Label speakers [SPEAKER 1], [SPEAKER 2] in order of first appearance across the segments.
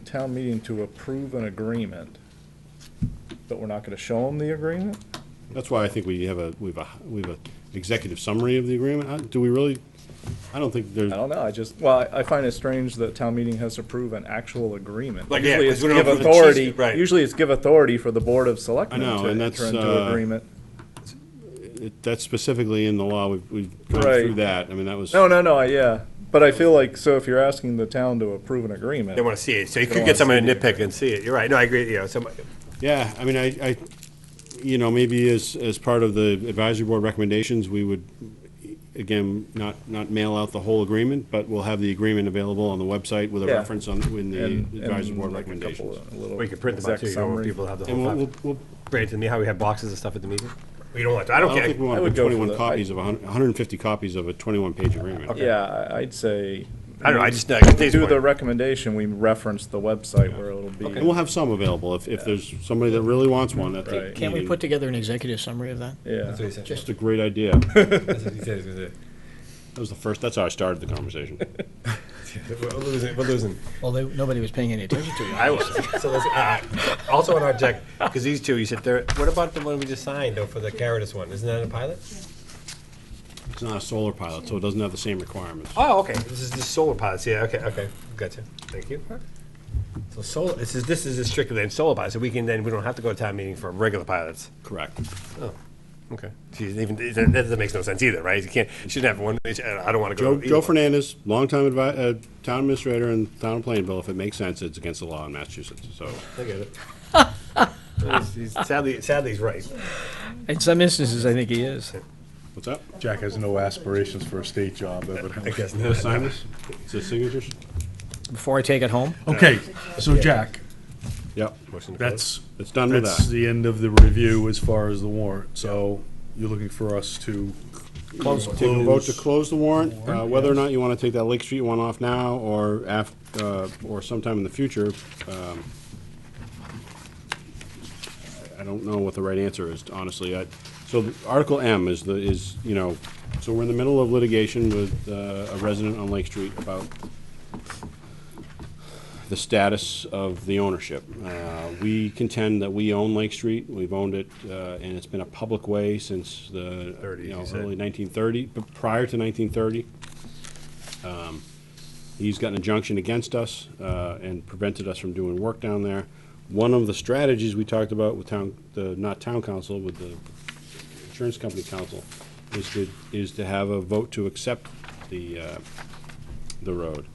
[SPEAKER 1] town meeting to approve an agreement, but we're not gonna show them the agreement?
[SPEAKER 2] That's why I think we have a, we've a, we've a executive summary of the agreement. I- Do we really, I don't think there's,
[SPEAKER 1] I don't know, I just, well, I I find it strange that town meeting has to approve an actual agreement.
[SPEAKER 3] Like, yeah,
[SPEAKER 1] Usually it's
[SPEAKER 3] 'cause we don't
[SPEAKER 1] give
[SPEAKER 3] have the cheese-
[SPEAKER 1] authority.
[SPEAKER 3] right.
[SPEAKER 1] Usually it's give authority for the Board of Selectmen
[SPEAKER 2] I know,
[SPEAKER 1] to
[SPEAKER 2] and that's,
[SPEAKER 1] enter into
[SPEAKER 2] uh,
[SPEAKER 1] agreement.
[SPEAKER 2] it- that's specifically in the law. We've, we've gone through
[SPEAKER 1] Right.
[SPEAKER 2] that. I mean, that was.
[SPEAKER 1] No, no, no, I- yeah, but I feel like, so if you're asking the town to approve an agreement,
[SPEAKER 3] They want to see it, so you
[SPEAKER 1] They
[SPEAKER 3] could
[SPEAKER 1] wanna
[SPEAKER 3] get someone
[SPEAKER 1] see
[SPEAKER 3] to nitpick and see it, you're right, no, I agree, you know, some,
[SPEAKER 2] Yeah, I mean, I, I, you know, maybe as, as part of the advisory board recommendations, we would, again, not, not mail out the whole agreement, but we'll have the agreement available on the website with a
[SPEAKER 1] Yeah.
[SPEAKER 2] reference on, in
[SPEAKER 1] and,
[SPEAKER 2] the advisory board
[SPEAKER 1] and like a couple,
[SPEAKER 2] recommendations.
[SPEAKER 1] of- a little.
[SPEAKER 3] we could print them out
[SPEAKER 1] exec
[SPEAKER 3] too, you know, where
[SPEAKER 1] summary.
[SPEAKER 3] people have the
[SPEAKER 2] And
[SPEAKER 3] whole
[SPEAKER 2] we'll,
[SPEAKER 3] file.
[SPEAKER 2] we'll, we'll-
[SPEAKER 3] Bring it to me, how we have boxes of stuff at the meeting? We don't want, to- I
[SPEAKER 2] I
[SPEAKER 3] don't
[SPEAKER 2] don't think we
[SPEAKER 3] care,
[SPEAKER 1] I
[SPEAKER 2] want to
[SPEAKER 1] would
[SPEAKER 2] put
[SPEAKER 1] go for
[SPEAKER 2] twenty-one
[SPEAKER 1] the-
[SPEAKER 2] copies of a hun- hundred and fifty copies of a twenty-one page agreement.
[SPEAKER 1] Yeah, I- I'd say.
[SPEAKER 3] I don't know, I just, I think
[SPEAKER 1] Do the
[SPEAKER 3] it's,
[SPEAKER 1] recommendation, we reference the website where it'll be.
[SPEAKER 2] And we'll have some available if, if there's somebody that really wants one at the
[SPEAKER 1] Right.
[SPEAKER 4] Can't we
[SPEAKER 2] meeting.
[SPEAKER 4] put together an executive summary of that?
[SPEAKER 1] Yeah,
[SPEAKER 2] Just a great idea. That
[SPEAKER 5] That's what he said he was gonna do.
[SPEAKER 2] was the first, that's how I started the conversation.
[SPEAKER 5] We're losing. We're losing.
[SPEAKER 4] Well, they, nobody was paying any attention to you.
[SPEAKER 3] I was, so let's, uh, also on our deck, because these two, you said there,
[SPEAKER 5] What about the one we just signed though for the Caritas one? Isn't that a pilot?
[SPEAKER 2] It's not a solar pilot, so it doesn't have the same requirements.
[SPEAKER 3] oh, okay, this is the solar pilots, yeah, okay, okay, gotcha, thank you. So solar, this is, this is strictly in solar pilots, so we can then, we don't have to go to town meeting for regular pilots.
[SPEAKER 2] Correct.
[SPEAKER 3] Okay. She's even, that that makes no sense either, right? You can't, you shouldn't have one, I don't want to go.
[SPEAKER 2] Joe,
[SPEAKER 3] either
[SPEAKER 2] Joe
[SPEAKER 3] one.
[SPEAKER 2] Fernandez, longtime advi- uh, town administrator in the town of Plainville, if it makes sense, it's against the law in Massachusetts, so.
[SPEAKER 3] I get it. He's- he's- Sadly, sadly, he's right.
[SPEAKER 4] In some instances, I think he is.
[SPEAKER 2] What's up?
[SPEAKER 6] Jack has no aspirations for a state job, evidently.
[SPEAKER 3] guess
[SPEAKER 2] Can I sign this? Is this signatures?
[SPEAKER 4] Before I take it home,
[SPEAKER 6] Okay, so Jack,
[SPEAKER 2] Yep.
[SPEAKER 6] that's,
[SPEAKER 2] It's done with
[SPEAKER 6] that's
[SPEAKER 2] that.
[SPEAKER 6] the end of the review as far as the warrant, so you're looking for us to
[SPEAKER 2] Close. Take a vote to
[SPEAKER 6] Close.
[SPEAKER 2] close the warrant, uh, whether or not you want to take that Lake Street one off now or af, uh, or sometime in the future. um, I- I don't know what the right answer is, honestly. I, so the- Article M is the, is, you know, so we're in the middle of litigation with, uh, a resident on Lake Street about the status of the ownership. Uh, We contend that we own Lake Street. We've owned it, uh, and it's been a public way since the, you
[SPEAKER 3] 30s,
[SPEAKER 2] know,
[SPEAKER 3] you said.
[SPEAKER 2] early 1930, but prior to 1930. Um, He's got an injunction against us uh, and prevented us from doing work down there. One of the strategies we talked about with town, the, not town council, with the insurance company council, is to, is to have a vote to accept the, uh, the road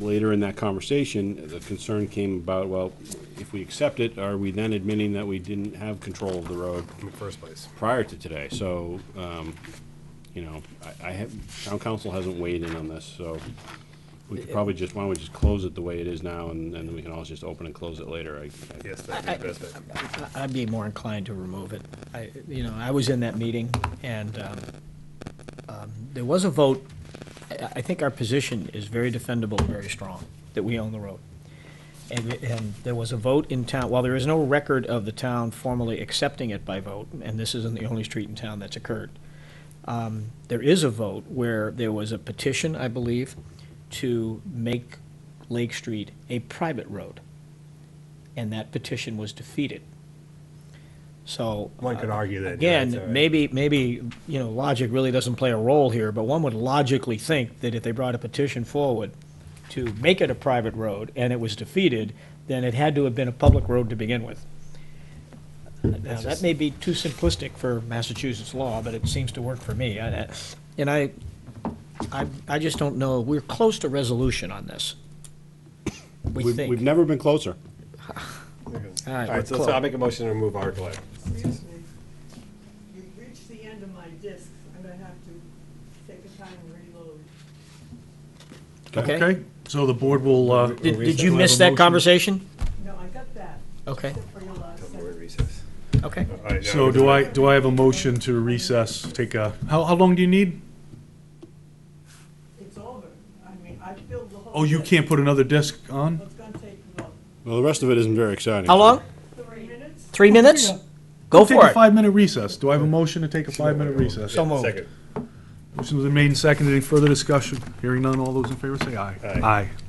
[SPEAKER 2] later in that conversation, the concern came about, well, if we accept it, are we then admitting that we didn't have control of the road
[SPEAKER 3] In the first place.
[SPEAKER 2] prior to today? So, um, you know, I, I have, town council hasn't weighed in on this, so we could probably just, why don't we just close it the way it is now, and then we can always just open and close it later. I- I-
[SPEAKER 3] Yes, that's the best bet.
[SPEAKER 4] I- I'd be more inclined to remove it. I, you know, I was in that meeting, and um, um, there was a vote. I I think our position is very defendable, very strong, that we own the road. And, it- and there was a vote in town, while there is no record of the town formally accepting it by vote, and this isn't the only street in town that's occurred, um, there is a vote where there was a petition, I believe, to make Lake Street a private road. And that petition was defeated. So.
[SPEAKER 3] One could
[SPEAKER 4] uh,
[SPEAKER 3] argue that, yeah, it's all
[SPEAKER 4] Again,
[SPEAKER 3] right.
[SPEAKER 4] maybe, maybe, you know, logic really doesn't play a role here, but one would logically think that if they brought a petition forward to make it a private road and it was defeated, then it had to have been a public road to begin with. Now, that may be too simplistic for Massachusetts law, but it seems to work for me. I- I- And I, I, I just don't know, we're close to resolution on this. We
[SPEAKER 2] We've, we've
[SPEAKER 4] think.
[SPEAKER 2] never been closer.
[SPEAKER 4] All
[SPEAKER 3] All
[SPEAKER 4] right,
[SPEAKER 3] right, so
[SPEAKER 4] cool.
[SPEAKER 3] so I'll make a motion to remove Article A.
[SPEAKER 7] Excuse me. You've reached the end of my discs. I'm gonna have to take a time and reload.
[SPEAKER 4] Okay.
[SPEAKER 6] So the board will, uh.
[SPEAKER 4] Did, did you miss that conversation?
[SPEAKER 7] No, I got that.
[SPEAKER 4] Okay.
[SPEAKER 7] Except for your last
[SPEAKER 3] We're in recess.
[SPEAKER 7] sentence.
[SPEAKER 4] Okay.
[SPEAKER 3] All right, now
[SPEAKER 6] So
[SPEAKER 3] we
[SPEAKER 6] do
[SPEAKER 3] can-
[SPEAKER 6] I, do I have a motion to recess, take a, how, how long do you need?
[SPEAKER 7] It's over. I mean, I filled the whole.
[SPEAKER 6] Oh, you
[SPEAKER 7] disc.
[SPEAKER 6] can't put another disc on?
[SPEAKER 7] It's gonna take, what,
[SPEAKER 2] Well, the rest of it isn't very exciting.
[SPEAKER 4] How long?
[SPEAKER 7] three minutes?
[SPEAKER 4] Three minutes? Go
[SPEAKER 6] Take
[SPEAKER 4] for
[SPEAKER 6] a
[SPEAKER 4] it.
[SPEAKER 6] five-minute recess. Do I have a motion to take a five-minute recess?
[SPEAKER 4] So moved.
[SPEAKER 3] Second.
[SPEAKER 6] Motion's been made and seconded. Any further discussion? Hearing none, all those in favor say aye.
[SPEAKER 3] Aye.
[SPEAKER 6] Aye.